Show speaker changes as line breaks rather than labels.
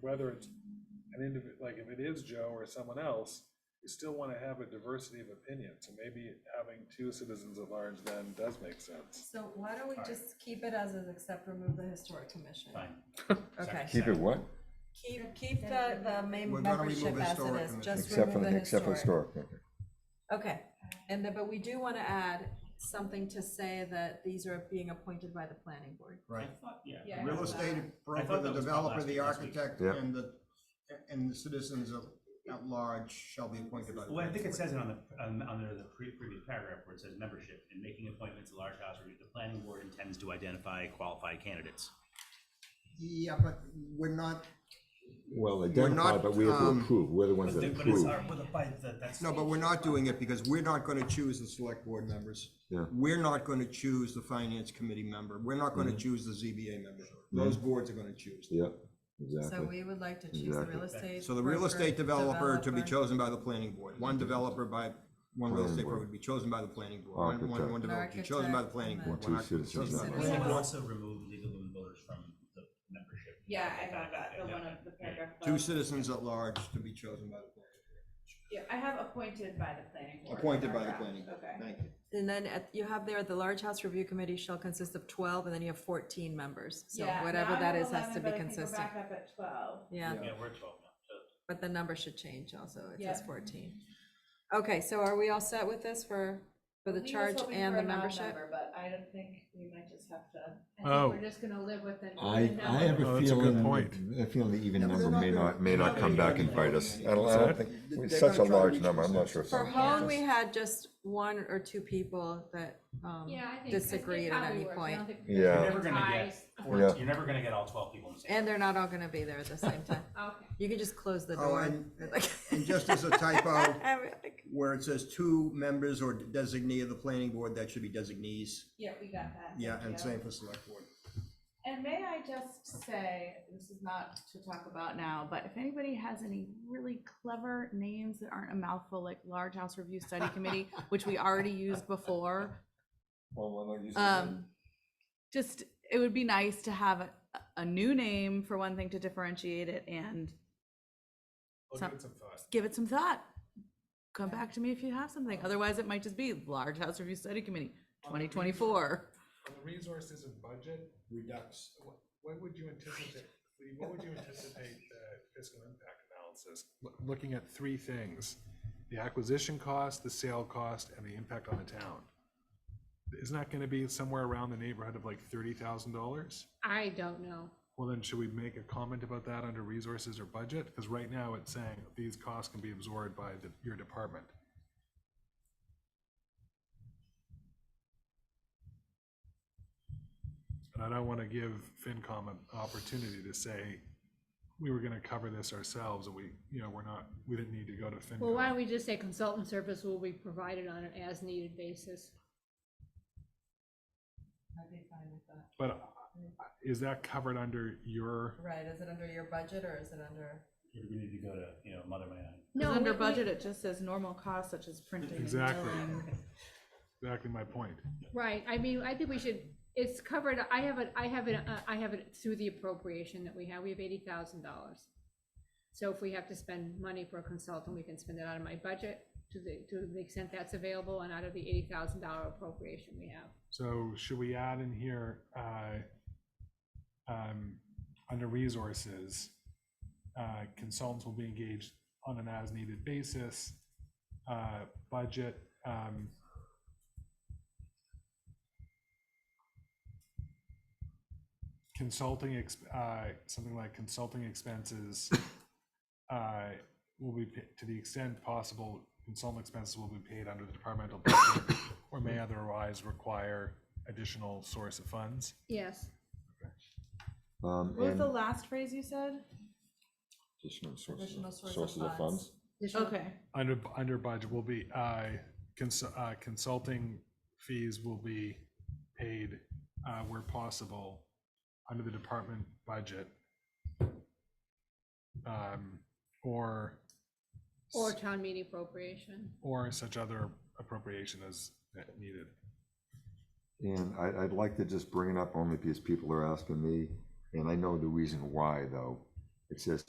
whether it's an individ, like if it is Joe or someone else, you still want to have a diversity of opinion. So maybe having two citizens at large then does make sense.
So why don't we
Alright.
just keep it as is, except remove the historic commission?
Fine.
Okay.
Second.
Keep it what?
Keep, keep the, the main
We're gonna
membership
remove
as it
historic
is,
commission.
just
Except for,
remove
the
the
except for
historic.
historic, okay.
Okay, and then, but we do wanna add something to say that these are being appointed by the planning board.
I
right?
thought,
Yeah.
yeah.
Real estate broker,
thought
the
that was called
developer,
last
the
week, last week.
architect,
Yeah.
and the, and the citizens at, at large shall be appointed by the.
Well, I think it says it on the, on, on the pre- previous paragraph where it says membership, in making appointments to large house review, the planning board intends to identify qualified candidates.
Yeah, but we're not,
Well,
not,
identify, but we have to
um,
approve, we're the ones
But
that
the- but it's
approve.
our- but the- by the- that's-
no, but we're not doing it because we're not gonna choose the select board members.
Yeah.
We're not gonna choose the finance committee member. We're not
Mm-hmm.
gonna choose the ZBA member. Those boards are gonna choose.
Yep,
So
exactly.
we would like to choose the real estate.
So the real
broker,
estate developer to be
developer.
chosen by the planning board, one developer by, one
Mm-hmm.
real
Planning
estate broker
board.
to be chosen by the planning board, one, one, one
Architect.
developer to be chosen by the planning board.
Architect,
one
and then-
architect
Two
chosen by the
citizens.
We
planning
can
board.
also remove legal and voters from the membership.
Yeah, I thought that, the one of the paragraph.
Two
above.
citizens at large to be chosen by the planning
Yeah, I have appointed by the planning board.
board. Appointed by the
paragraph.
planning board.
Okay.
Thank you.
And then at, you have there, the large house review committee shall consist of twelve, and then you have fourteen members, so
Yeah,
whatever
now I
that
have
is has to
11,
be
but I think
consistent.
We're back up at twelve.
Yeah,
Yeah, we're twelve now, so.
but the number should change also, it says
Yeah.
fourteen. Okay, so are we all set with this for, for the
We was
charge
hoping
and
for
the
a non
membership?
member, But I don't think we might just have to, I
Oh.
think we're just gonna live with an
I,
even
I have
number.
Oh,
a
that's a good
feeling,
point.
I feel the even
Yeah, but
number
they're not
may
gonna-
not, may
they're
not
not
come
gonna
back and
try to
bite us.
reach
I don't, I don't
consensus.
think,
They're
it's such
gonna
a
try to
large
reach
number, I'm not sure.
consensus.
For
if-
home, we had just one or two people that, um,
Yeah, I think- I think
disagreed at
probably
any
works. I
point.
don't think
Yeah.
You're never gonna get,
ties.
four-
Yeah.
you're never gonna get all twelve people in the same.
And they're not all gonna be there at the same time.
Okay.
You can just close the
Oh,
door.
and, and just as a typo, where it says two members or designee of the planning board, that should be designees.
Yeah, we got that.
Yeah,
Thank
and
you.
same for select board.
And may I just say, this is not to talk about now, but if anybody has any really clever names that aren't a mouthful, like Large House Review Study Committee, which we already used before,
Well, why don't you say
um, just, it would be nice to have a, a new name for one thing to differentiate it and
We'll
Some-
give it some thought.
give it some thought. Come back to me if you have something. Otherwise, it might just be Large House Review Study Committee, twenty twenty-four.
On the resources and budget,
Redux.
what- what would you anticipate, Lee, what would you anticipate the fiscal impact analysis? loo- Looking at three things, the acquisition cost, the sale cost, and the impact on the town. Isn't that gonna be somewhere around the neighborhood of like thirty thousand dollars?
I don't know.
Well, then should we make a comment about that under resources or budget? Because right now it's saying these costs can be absorbed by the, your department. And I don't want to give FinCom an opportunity to say, we were going to cover this ourselves and we, you know, we're not, we didn't need to go to FinCom.
Well, why don't we just say consultant service will be provided on an as-needed basis?
I'd be fine with that.
But uh, is that covered under your,
Right, is it under your budget or is it under?
We need to go to, you know, Mother May I.
No,
Under
we- we-
budget, it just says normal costs such as printing and
Exactly.
billing.
exactly my point?
Right, I mean, I think we should, it's covered, I have it, I have it, uh, I have it through the appropriation that we have, we have eighty thousand dollars. So if we have to spend money for a consultant, we can spend it out of my budget to the, to the extent that's available and out of the eighty thousand dollar appropriation we have.
So should we add in here, uh, um, under resources, uh, consultants will be engaged on an as-needed basis, uh, budget, um, consulting, ex- uh, something like consulting expenses, uh, will be, pa- to the extent possible, consultant expenses will be paid under the departmental budget or may otherwise require additional source of funds.
Yes,
Um,
What was
and
the last phrase you said?
additional sources,
Additional
of-
source of
sources of
funds.
funds.
additional-
Okay,
Under, under budget will be, uh, cons- uh, consulting fees will be paid, uh, where possible under the department budget. Um, or,
or town meeting appropriation.
or such other appropriation as needed.
And I, I'd like to just bring it up only because people are asking me, and I know the reason why, though. It says